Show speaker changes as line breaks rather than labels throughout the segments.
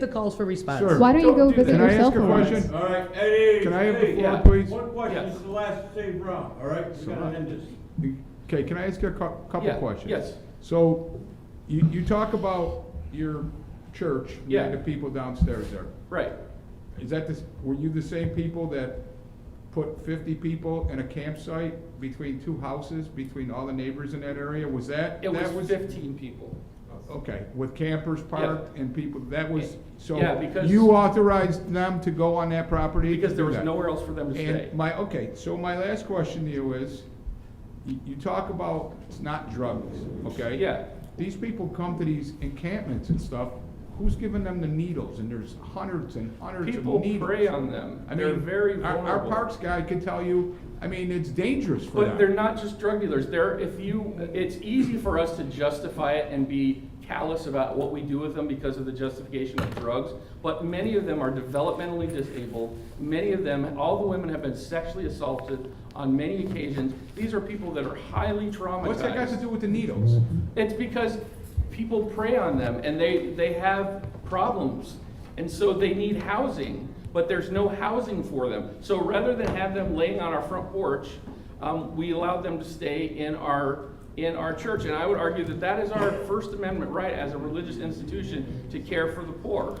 the calls for response.
Sure.
Why don't you
Don't
go
do that.
visit your
Can I
cell
ask a
phone?
question?
All right, Eddie.
Can I have the
Eddie,
floor,
yeah.
please?
One question,
Yes.
it's the last Dave Brown, all right? We gotta end this.
Okay, can I ask you a cou- couple
Yeah,
questions?
yes.
So, you, you talk about your church,
Yeah.
and the people downstairs there.
Right.
Is that the, s- were you the same people that put fifty people in a campsite between two houses, between all the neighbors in that area? Was that?
It
that
was fifteen people.
Okay, with campers parked and people, that was, so.
Yeah, because-
You authorized them to go on that property? to
Because there
do
was
that?
nowhere else for them to stay.
And my, okay, so my last question to you is, you, you talk about it's not drugs, okay?
Yeah.
These people come to these encampments and stuff, who's giving them the needles? And there's hundreds and hundreds of
People
needles.
prey on them.
I
They're
mean,
very
our- Our
vulnerable.
parks guy could tell you, I mean, it's dangerous for them.
But they're not just drug dealers. They're, if you, it's easy for us to justify it and be callous about what we do with them because of the justification of drugs. But many of them are developmentally disabled. Many of them, all the women have been sexually assaulted on many occasions. These are people that are highly traumatized.
What's that got to do with the needles?
It's because people prey on them and they, they have problems. And so they need housing, but there's no housing for them. So rather than have them laying on our front porch, um, we allowed them to stay in our, in our church. And I would argue that that is our First Amendment right as a religious institution to care for the poor.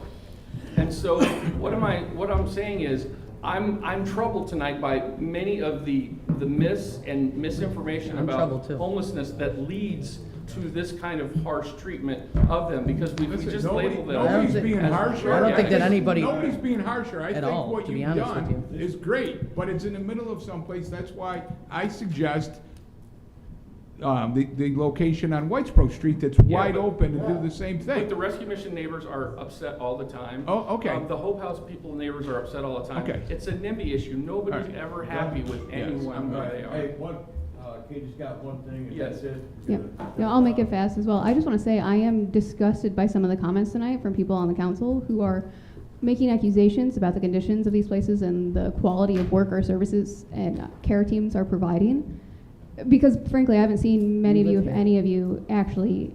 And so what am I, what I'm saying is, I'm, I'm troubled tonight by many of the, the mis and misinformation
I'm
about
troubled too.
homelessness that leads to this kind of harsh treatment of them, because we we
Listen,
just
nobody-
label them.
Nobody's
as-
being
as-
harsher.
I don't think that anybody-
Nobody's being harsher. I
At
think
all,
what
to be
you've
honest with
done is great, but it's in the middle of someplace. That's why I suggest um, the, the location on Whitesboro Street that's
Yeah,
wide
but-
open to do the same
But the
thing.
rescue mission neighbors are upset all the time.
Oh, okay.
Um, The Hope House people neighbors are upset all the time.
Okay.
It's a NIMBY issue, nobody's
All right.
ever happy with
Yes, I'm
anyone where
glad.
they are.
Hey, one, uh, Katie's got one thing, and
Yes.
that's it.
Yeah, no, I'll make it fast as well. I just want to say I am disgusted by some of the comments tonight from people on the council who are making accusations about the conditions of these places and the quality of work our services and care teams are providing. Because frankly, I haven't seen many of you, if any of you, actually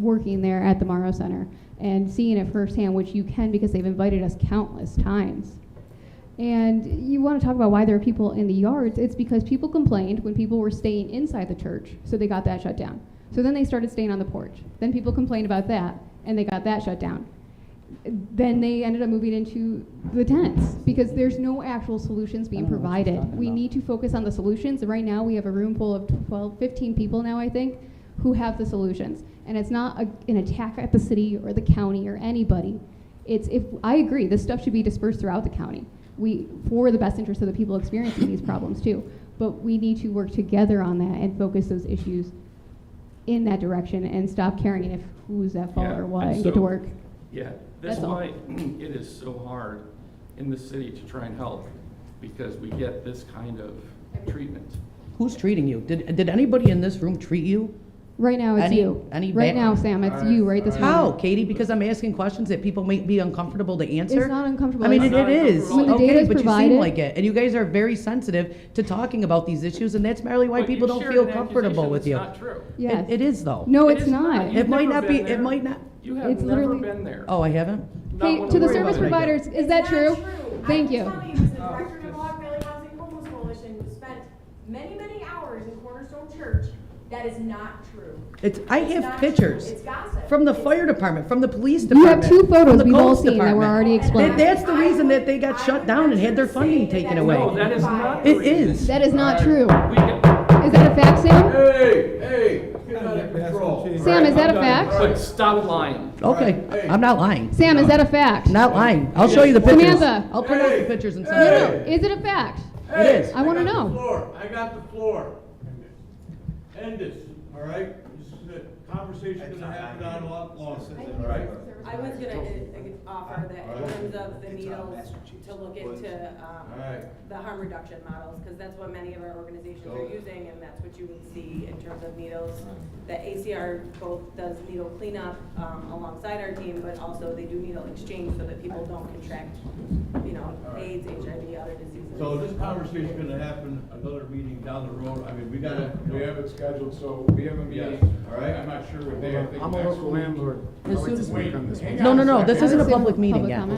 working there at the Morrow Center and seeing it firsthand, which you can because they've invited us countless times. And you want to talk about why there are people in the yards? It's because people complained when people were staying inside the church, so they got that shut down. So then they started staying on the porch. Then people complained about that, and they got that shut down. Then they ended up moving into the tents because there's no actual solutions being
I don't know what she's
provided.
talking
We
about.
need to focus on the solutions. And Right now, we have a room full of 12, 15 people now, I think, who have the solutions. And it's not a, an attack at the city or the county or anybody. It's if I agree, this stuff should be dispersed throughout the county. We for the best interest of the people experiencing these problems too. But we need to work together on that and focus those issues in that direction and stop caring if who's at fault
Yeah,
or what
and
and get
so-
to work.
Yeah, that's
That's all.
why it is so hard in the city to try and help, because we get this kind of treatment.
Who's treating you? Did, did anybody in this room treat you?
Right now, it's
Any-
you.
any
right now,
background.
Sam, it's
All
you
right,
right this
all right.
How, Katie? Because I'm asking questions that people may be uncomfortable to answer.
not uncomfortable.
I mean, it
It's not
it is.
uncomfortable. When the
data
Okay,
is
but you seem
provided-
like it. And you guys are very sensitive to talking about these issues, and that's merely why
But you
people don't
shared
feel
an
comfortable
accusation
with you.
that's not true.
It-
Yes.
It is, though.
No,
It
it's
is
not.
You've
It might
never
not be-
been
it
there.
might not-
You have
It's
never
literally-
been there.
Oh, I haven't?
Not
Hey,
one
to the
word
service
about it.
providers, is that
It's
true?
not true.
Thank
I
you.
can tell you, as the
Oh,
director of the
yes.
Mohawk Valley Housing Homeless Coalition, who spent many, many hours in Cornerstone Church, that is not true.
It's, I
It's
have
not true.
pictures.
It's gossip.
From the
It's-
fire department, from the police
You have
department.
two
from
photos
the
we've all
codes
seen that were
department.
already explained.
That- that's the
I
reason that they
would-
got
I
shut
would
down and had their
venture to
funding
say
taken
that
away.
No, that is not.
It
the reason.
is.
That is not true.
We get-
Is that a fact, Sam?
Hey, hey, get out of control.
Sam, is that a
All right, I'm
fact?
done.
But stop lying.
Okay, I'm not lying.
Sam, is that a fact?
Not lying. I'll show you the pictures.
Samantha.
I'll print out the
Hey.
pictures and
Hey.
send it.
Is it a fact?
Hey,
is.
I wanna
got the
know.
floor. I got the floor. End this, all right? This is it. Conversation's gonna happen on a lot longer, all right?
I was gonna uh, offer that in terms of the needles, to look into,
All
um,
right.
the harm reduction models, because that's what many of our organizations are using, and that's what you would see in terms of needles. The ACR both does needle cleanup, um, alongside our team, but also they do needle exchange so that people don't contract, you know, AIDS, HIV, other diseases.
So this conversation's gonna happen another meeting down the road. I mean, we gotta,
We have it scheduled, so we have a meeting.
Yes.
All right, I'm not sure what day, I think
I'm a
next
local
week.
landlord. I
As
like
soon
to
as
work
we-
on this.
this one.
No, no, no, this
I would
isn't a
say
public meeting
public
yet.
comment.